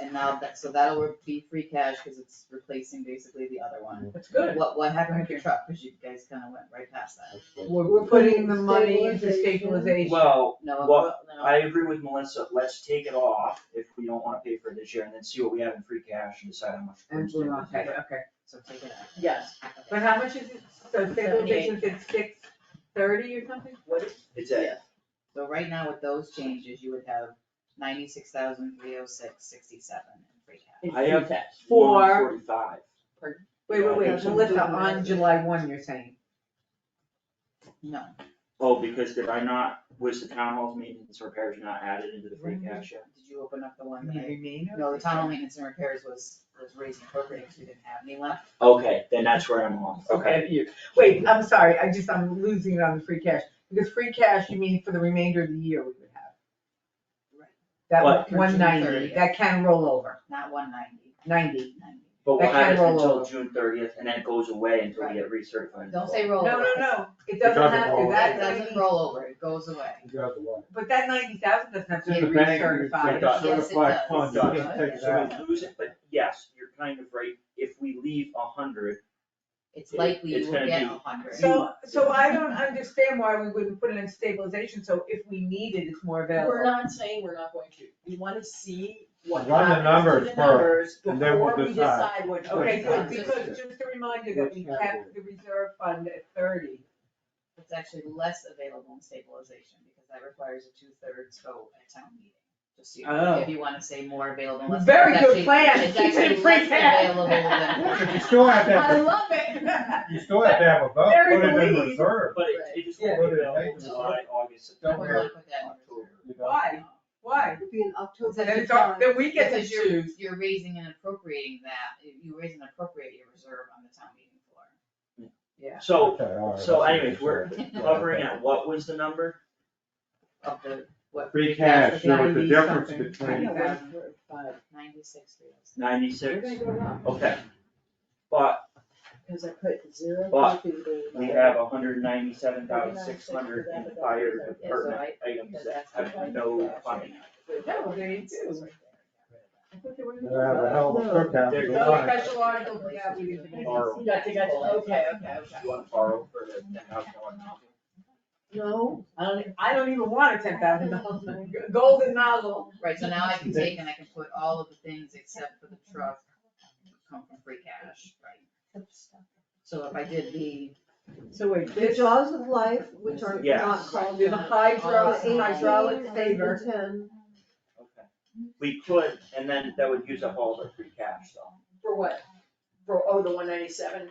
and now that, so that'll be free cash, cause it's replacing basically the other one. That's good. What, what happened with your truck, cause you guys kinda went right past that. We're, we're putting the money into stabilization. Well, No, Well, no. I agree with Melissa, let's take it off if we don't wanna pay for it this year, and then see what we have in free cash and decide how much. we're And blue, gonna okay, spend. okay. So take it out. Yes, But how much is it, so stabilization, it's six thirty or something? what is, It's a, So right now with those changes, you would have ninety-six thousand, three oh six, sixty-seven in free cash. I have For- one forty-five. Wait, wait, wait, Yeah. Melissa, on July one, you're saying? No, Oh, because did I not, was the town hall's maintenance repairs not added into the free cash yet? did you open up the one that I? remainder? No, the tunnel maintenance and repairs was, was raised and appropriate, cause we didn't have any left. Okay, then that's where I'm off, okay. Okay, you, wait, I'm sorry, I just, I'm losing it on the free cash, because free cash, you mean for the remainder of the year we would have? Right. That But- one Through June ninety, 30th. that can roll over, Not one ninety. ninety. But we'll That have it can roll until over. June thirtieth, and then it goes away until we get recertified. Don't say No, roll no, over. no, it doesn't doesn't have to, roll that That ninety, doesn't roll over, it goes away. You got the one. but that ninety thousand doesn't have to be Just the bank, you recertified. take out. Yes, it Certified does. fund, you It can does. take it So out. we lose it, but yes, you're kind of right, if we leave a hundred, It's likely It's you will gonna get be- a hundred. So, so I don't understand why we wouldn't put it in stabilization, so if we need it, it's more available. we're not saying we're not going to, we wanna see what Run the happens to numbers the first, numbers and then we'll before we decide. decide what. Okay, good, Right. because just a reminder that we kept the reserve fund at thirty. It's actually less available in stabilization, because that requires a two-thirds vote at town meeting. Just so you know, Oh. if you wanna say more available, less. Very it's good actually- plan. It's Keep it actually in free less cash. available than. But you still have to have, love it. you still have to have a vote, Very put it in believe. reserve. but it, it just Yeah. won't be Yeah. available till July, August, Don't We're September, gonna put that in October. you know? Why, why? It'd be in October. Then Then it's it's our- then we get to Because you're, choose. you're raising and appropriating that, If you raise and appropriate your reserve on the town meeting floor. So, Okay, all right, so that's anyways, we're reserve. Yeah, hovering okay. at, what was the number? Of the, what? Free cash, with there was the 90 difference something. I between, know, Right. we're- but Ninety-six, three oh six. We're Ninety-six, gonna go up, okay. But cause I put zero. But through the- we have a hundred ninety-seven thousand six hundred in the fire department items that have no funding. No, they do. I thought they were we gonna- have a hell of a cookout. There's- Good No night. special article for that, we didn't. do. Borrow. Gotcha, gotcha, okay, okay, okay. You wanna borrow for the ten thousand dollars? No, I don't, e, I don't even want a ten thousand dollars, golden nozzle. Right, so now I can take and I can put all of the things except for the truck come from free cash, right? So if I did the, So wait, The this, jaws of life, which are Yes. not called. the hydro, out, the hydraulic 18, saver. 110. Okay. We could, and then that would use up all the free cash though. for what? For, oh, the one ninety-seven,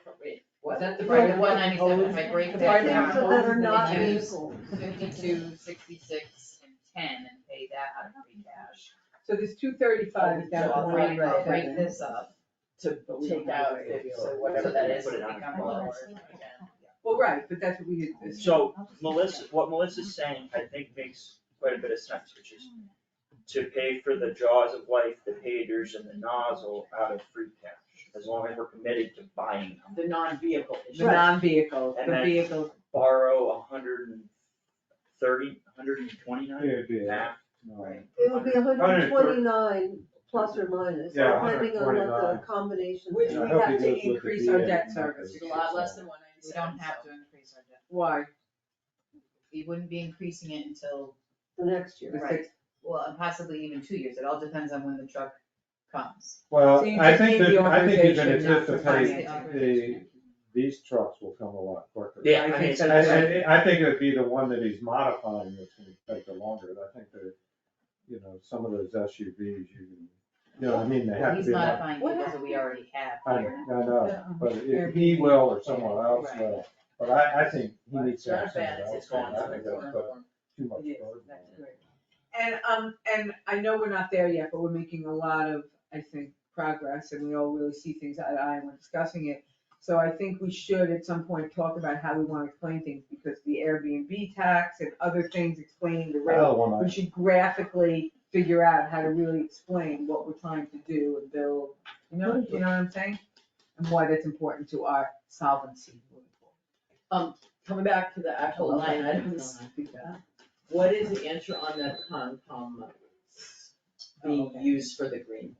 was that the No, right, one ninety-seven, if I break The that Right things down, now. that are not It is. vehicles. fifty-two, sixty-six, and ten, and pay that out of free cash. So this two thirty-five is down So to I'll one break, I'll break ninety-seven. this up, to take out, so whatever so that is, Put it it on becomes the lower. Well, right, but that's what we did this. So Melissa, what Melissa's saying, I think makes quite a bit of sense, which is to pay for the jaws of life, the pagers and the nozzle out of free cash, as long as we're committed to buying them. the non-vehicle The non-vehicles, And the that's- vehicles, borrow a hundred and thirty, a hundred and twenty-nine? It'd be, Yeah. no, It would be hundred and 120. twenty-nine plus or minus, Yeah, depending on what the 129. combination. which Yeah, we I hope have he to goes with the increase our VA debt number. service. It's a lot less than one We ninety-seven. don't have to increase our debt, Why? we wouldn't be increasing it until, The next The year. Right. six- well, and possibly even two years, it all depends on when the truck comes. Well, So you I just think need the that, I think you can authorization, not the anticipate financing. the, these trucks will come a lot quicker. I Yeah, I mean, think it's, And, so. That's it's- and I think it'd be the one that he's modifying that's gonna take the longer, I think that, you know, some of those SUVs, you, can- you know, what I mean, they have to He's be. mod- modifying What it because we already have I, I here. know, but if he will or someone else will, but I, I think he needs to have someone else. it's going I to think that's put Too much burden on it. And, um, and I know we're not there yet, but we're making a lot of, I think, progress and we all really see things eye to eye and we're discussing it. So I think we should at some point talk about how we wanna explain things because the Airbnb tax and other things explaining the rate. Another one I- We should graphically figure out how to really explain what we're trying to do and build, you know, you know what I'm saying? And why that's important to our solvency. Coming back to the actual line items, what is the answer on the Concom being used for the green?